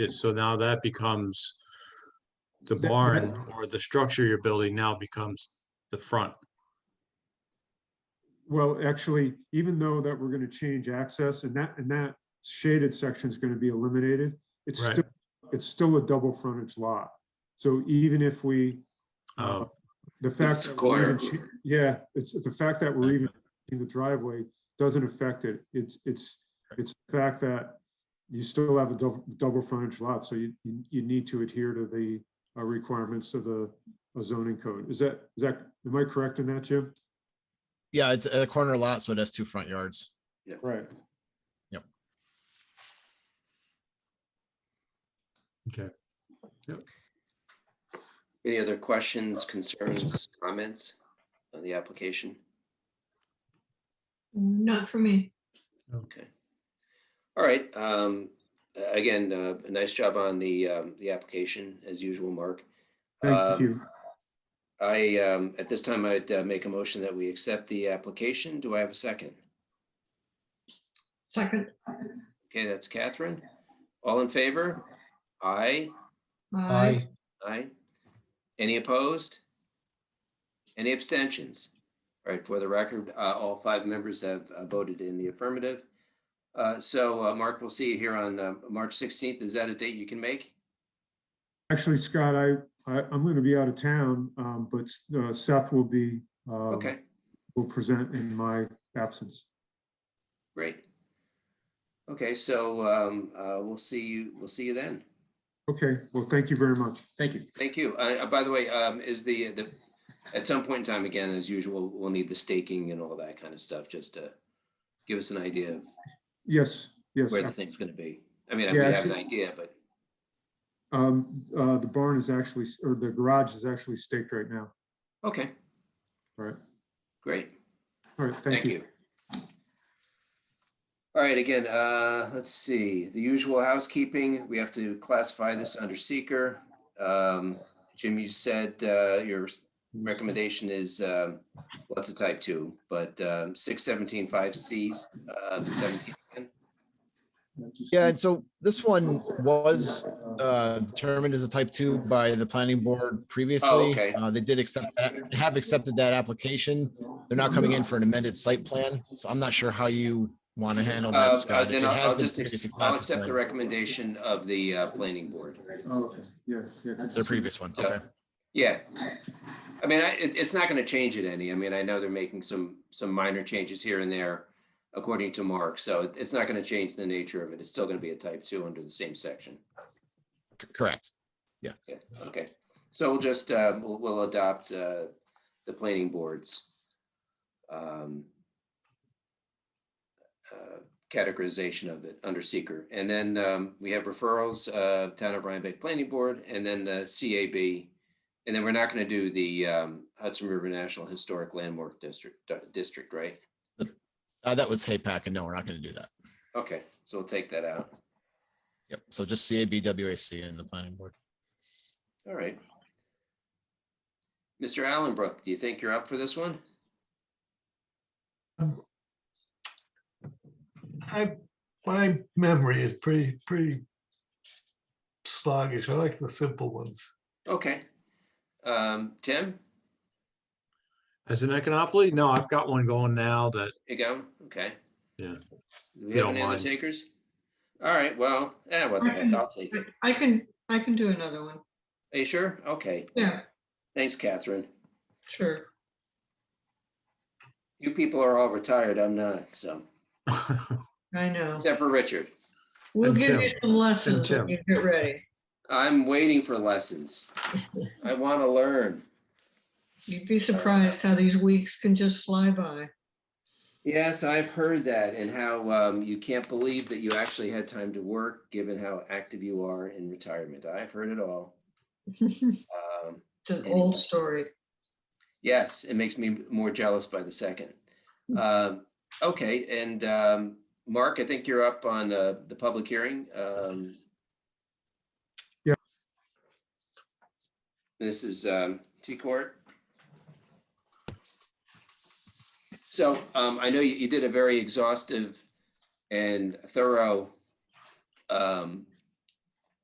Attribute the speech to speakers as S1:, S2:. S1: So now that becomes the
S2: That- that-
S1: barn or the structure you're building now becomes the front.
S2: Well, actually, even though that we're gonna change access and that, and that shaded section is gonna be eliminated, it's
S1: Right.
S2: still, it's still a double frontage lot. So even if we, uh,
S1: Oh,
S2: the fact. that we're even cha- Yeah, it's the fact that we're even in the driveway doesn't affect it. It's, it's, it's the fact that you still have a double, double frontage lot, so you, you you need to adhere to the uh, requirements of the zoning code. Is that, is that, am I correct in that, Jim?
S3: Yeah, it's a corner lot, so it has two front yards.
S2: Right.
S1: okay.
S4: Any other questions, concerns, comments on the application?
S5: Not for me.
S4: Okay. All right, um, a- again, uh, a nice job on the, um, the application as usual, Mark.
S2: Thank
S4: Um,
S2: you.
S4: I, um, at this time, I'd uh, make a motion that we accept the application. Do I have a second?
S5: Second,
S4: Okay, that's Catherine. All in favor? Aye,
S5: aye.
S4: aye. Any opposed? Any abstentions? All right, for the record, uh, all five members have uh, voted in the affirmative. Uh, so, uh, Mark, we'll see you here on, uh, March 16th. Is that a date you can make?
S2: Actually, Scott, I, I, I'm gonna be out of town, um, but uh, Seth will be, uh,
S4: Okay,
S2: will present in my absence.
S4: great. Okay, so, um, uh, we'll see you, we'll see you then.
S2: Okay, well, thank you very much. Thank you.
S4: Thank you. Uh, uh, by the way, um, is the, the, at some point in time, again, as usual, we'll need the staking and all that kind of stuff, just to give us an idea of
S2: Yes, yes. uh,
S4: where the thing's gonna be. I mean, I
S2: Yeah, I
S4: have an
S2: see.
S4: idea, but,
S2: Um, uh, the barn is actually, or the garage is actually staked right now.
S4: okay,
S2: All right,
S4: great.
S2: all right, thank
S4: Thank
S2: you.
S4: you. All right, again, uh, let's see, the usual housekeeping, we have to classify this under seeker. Um, Jim, you said, uh, your recommendation is, um, what's a type two, but, um, six seventeen five Cs, um, seventeen.
S3: Yeah, and so this one was uh, determined as a type two by the planning board previously.
S4: okay.
S3: Uh, They did accept, that have accepted that application. They're now coming in for an amended site plan, so I'm not sure how you want to handle
S4: Uh,
S3: that,
S4: uh,
S3: Scott. Oh, It
S4: Then I'll-
S3: has
S4: I'll
S3: been
S4: just,
S3: previously
S4: ex- I'll accept the
S3: classified,
S4: recommendation of the, uh, planning board.
S2: Oh, okay, yeah, yeah. good to
S3: the
S2: see you.
S3: previous one,
S4: So-
S3: okay.
S4: Yeah. I mean, I, it, it's not gonna change it any. I mean, I know they're making some, some minor changes here and there according to Mark, so it- it's not gonna change the nature of it. It's still gonna be a type two under the same section.
S3: C- Correct.
S4: Yeah, okay. So we'll just, uh, we'll, we'll adopt, uh, the planning boards. um, uh, Categorization of it under seeker. And then, um, we have referrals, uh, Town of Rhinebeck Planning Board and then the CAB. And then we're not gonna do the, um, Hudson River National Historic Landmark District, District, right?
S3: Uh, That was HAPAC, and no, we're not going to do that.
S4: Okay, so we'll take that out.
S3: Yep, so just CABWAC and the planning board.
S4: All right. Mr. Allenbrook, do you think you're up for this one?
S6: I, my memory is pretty, pretty sluggish. I like the simple ones.
S4: Okay. Um, Tim,
S1: As an econopoly? No, I've got one going now that,
S4: you go, okay.
S1: Yeah.
S4: Do we
S1: You
S4: have
S1: don't
S4: any other
S1: mind.
S4: takers? All right, well, eh, what the heck, I'll take it.
S5: I- I can, I can do another one.
S4: Are you sure? Okay,
S5: Yeah,
S4: thanks, Catherine.
S5: sure.
S4: You people are all retired, I'm not, so,
S5: I know.
S4: except for Richard.
S5: We'll
S1: And
S5: give you
S1: Tim.
S5: some lessons
S1: Tim.
S5: when you get ready.
S4: I'm waiting for lessons. I want to learn.
S5: You'd be surprised how these weeks can just fly by.
S4: Yes, I've heard that and how um, you can't believe that you actually had time to work, given how active you are in retirement. I've heard it all.
S5: It's
S4: Um,
S5: an
S4: Anyway.
S5: old story.
S4: Yes, it makes me more jealous by the second. Um, Okay, and um, Mark, I think you're up on uh, the public hearing. um,
S2: Yeah.
S4: This is um, T Court. So um, I know you you did a very exhaustive and thorough um,